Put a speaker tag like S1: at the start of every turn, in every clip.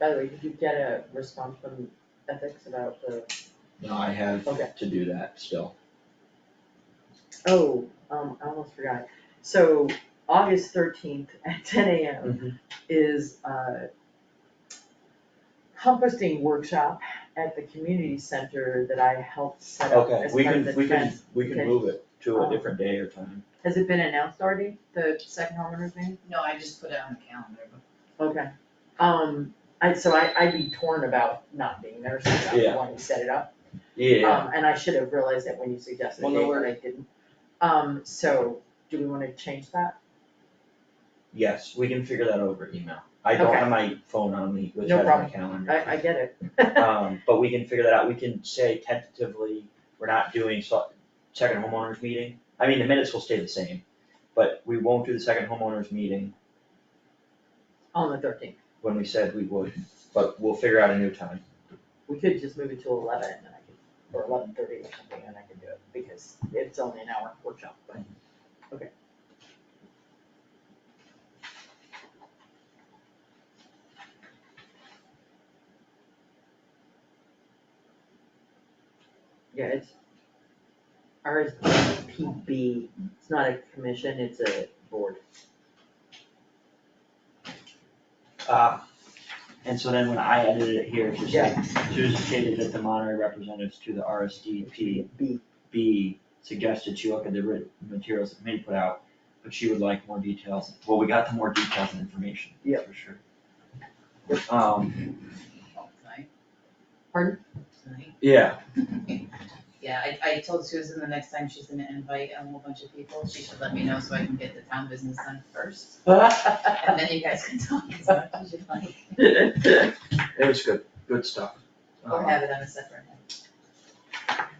S1: By the way, did you get a response from ethics about the,
S2: No, I have
S1: Okay.
S2: to do that still.
S1: oh, um, I almost forgot. So August thirteenth at ten AM is uh composting workshop at the community center that I helped set up
S2: Okay,
S1: as
S2: we
S1: part of
S2: can,
S1: the
S2: we can,
S1: trans-
S2: we can
S1: okay.
S2: move it to a
S1: Um,
S2: different day or time.
S1: Has it been announced already, the second homeowner's name?
S3: No, I just put it on the calendar, but
S1: Okay, um, I, so I, I'd be torn about not being there since I'm the
S2: Yeah.
S1: one who set it up.
S2: Yeah,
S1: Um, and I should have realized that when you suggested
S2: Well,
S1: it,
S2: no
S1: but I didn't. Um, so, do we wanna change that?
S2: yes, we can figure that over email. I don't
S1: Okay.
S2: have my phone on me, which
S1: No
S2: has my
S1: problem.
S2: calendar.
S1: I, I get it.
S2: Um, but we can figure that out, we can say tentatively, we're not doing so, second homeowners meeting, I mean, the minutes will stay the same, but we won't do the second homeowners meeting
S1: On the thirteenth,
S2: when we said we would, but we'll figure out a new time.
S1: we could just move it to eleven and then I could, or eleven thirty or something, and I could do it, because it's only an hour workshop, but, okay. Yeah, it's RSPB, it's not a commission, it's a board.
S2: Uh, and so then when I edited it here, it's just like, Susan stated that the Monterey representatives to the RSDP
S1: B.
S2: B suggested she look at the written materials that Min put out, but she would like more details. Well, we got the more details and information,
S1: Yeah.
S2: for sure. Um,
S3: tonight.
S1: Pardon?
S3: Tonight.
S2: yeah,
S3: Yeah, I, I told Susan the next time she's gonna invite a whole bunch of people, she should let me know so I can get the town business done first. And then you guys can talk as much as you'd like,
S2: it was good, good stuff.
S3: or
S2: Uh,
S3: have it on a separate.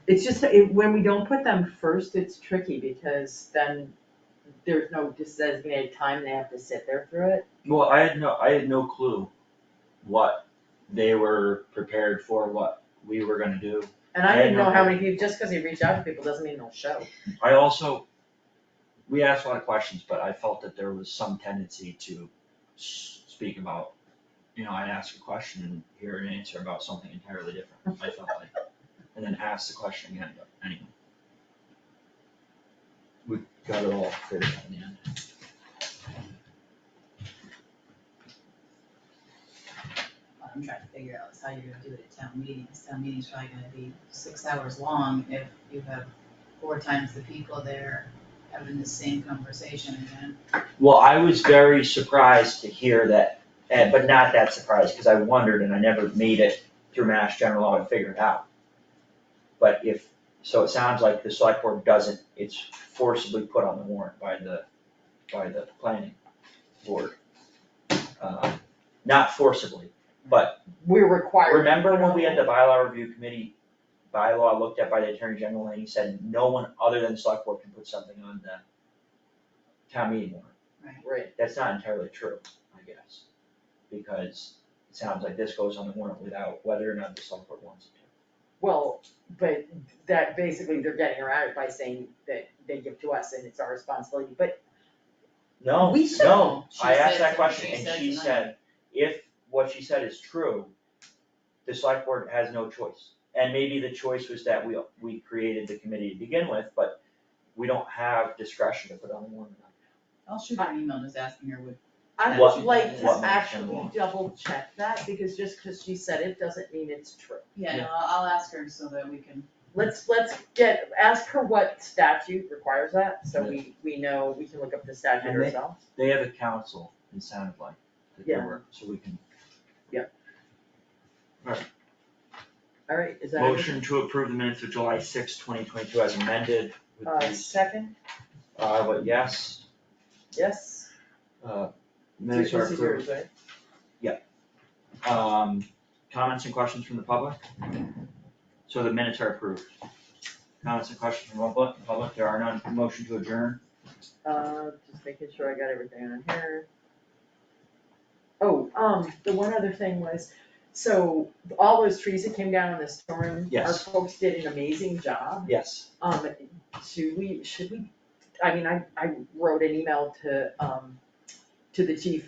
S1: It's just, it, when we don't put them first, it's tricky because then there's no designated time, they have to sit there through it.
S2: Well, I had no, I had no clue what they were prepared for, what we were gonna do.
S1: And I didn't know how many people, just cause he reached out to people doesn't mean they'll show.
S2: I also, we asked a lot of questions, but I felt that there was some tendency to s- speak about, you know, I'd ask a question and hear an answer about something entirely different, I felt like. And then ask the question again, but anyway. We got it all figured out in the end.
S3: What I'm trying to figure out is how you're gonna do it at town meeting, this town meeting's probably gonna be six hours long if you have four times the people there having the same conversation again.
S2: Well, I was very surprised to hear that, and, but not that surprised, cause I wondered and I never made it through Mass General Law and figured it out. But if, so it sounds like the select board doesn't, it's forcibly put on the warrant by the, by the planning board. Uh, Not forcibly,
S1: We're required.
S2: remember when we had the bylaw review committee bylaw looked at by the attorney general and he said, no one other than select board can put something on the town meeting warrant?
S1: Right,
S2: That's not entirely true, I guess, because it sounds like this goes on the warrant without whether or not the select board wants it
S1: well, but that basically they're getting around it by saying that they give to us and it's our responsibility, but
S2: to. No,
S1: We should-
S2: no,
S3: She
S2: I asked
S3: said
S2: that
S3: something
S2: question
S3: she
S2: and
S3: said
S2: she
S3: tonight.
S2: said, if what she said is true, the select board has no choice. And maybe the choice was that we, we created the committee to begin with, but we don't have discretion to put on the warrant. or not.
S3: I'll shoot her an email just asking her what,
S1: I
S2: What-
S1: would like
S2: what
S1: to
S2: makes them
S1: actually
S2: want?
S1: double check that because just cause she said it doesn't mean it's true.
S3: yeah,
S2: Yeah.
S3: no, I'll, I'll ask her so that we can
S1: Let's, let's get, ask her what statute requires that, so we, we know, we can look up the statute
S2: And they-
S1: ourselves.
S2: They have a council, it sounded like, that they
S1: Yeah.
S2: were, so we can.
S1: Alright, is that? it?
S2: Motion to approve the minutes of July sixth, twenty twenty-two as amended with
S1: Uh,
S2: these
S1: second,
S2: Uh, but yes,
S1: yes.
S2: uh, minutes are
S1: This is yours,
S2: approved.
S1: right?
S2: Um, comments and questions from the public? So the minutes are approved. Comments and questions from the public, public, there are none, motion to adjourn,
S1: Uh, just making sure I got everything on here. Oh, um, the one other thing was, so all those trees that came down in the storm, our
S2: Yes.
S1: folks did an amazing job.
S2: yes.
S1: Um, should we, should we, I mean, I, I wrote an email to, um, to the chief